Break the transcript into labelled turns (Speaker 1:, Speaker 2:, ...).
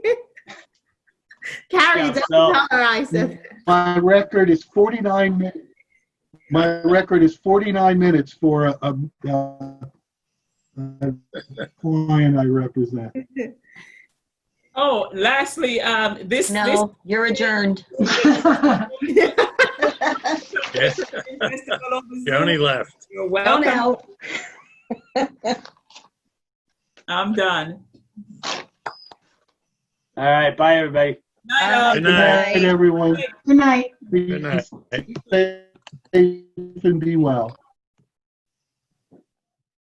Speaker 1: Carrie
Speaker 2: Yeah,
Speaker 1: doesn't
Speaker 2: so-
Speaker 1: colorize it.
Speaker 3: My record is 49, min- my record is 49 minutes for a, a- a a client I represent.
Speaker 2: Oh, lastly, um, this, this,
Speaker 4: No, you're adjourned.
Speaker 5: Yes,
Speaker 2: festival over Zoom,
Speaker 5: Joni left.
Speaker 2: You're
Speaker 4: Go
Speaker 2: welcome.
Speaker 4: now.
Speaker 2: I'm done.
Speaker 6: All right, bye, everybody.
Speaker 2: Night, um, all.
Speaker 4: Uh,
Speaker 5: Good
Speaker 3: Good
Speaker 5: night.
Speaker 3: night, everyone.
Speaker 7: Good night.
Speaker 3: Be
Speaker 5: Good night.
Speaker 3: Safe and be well.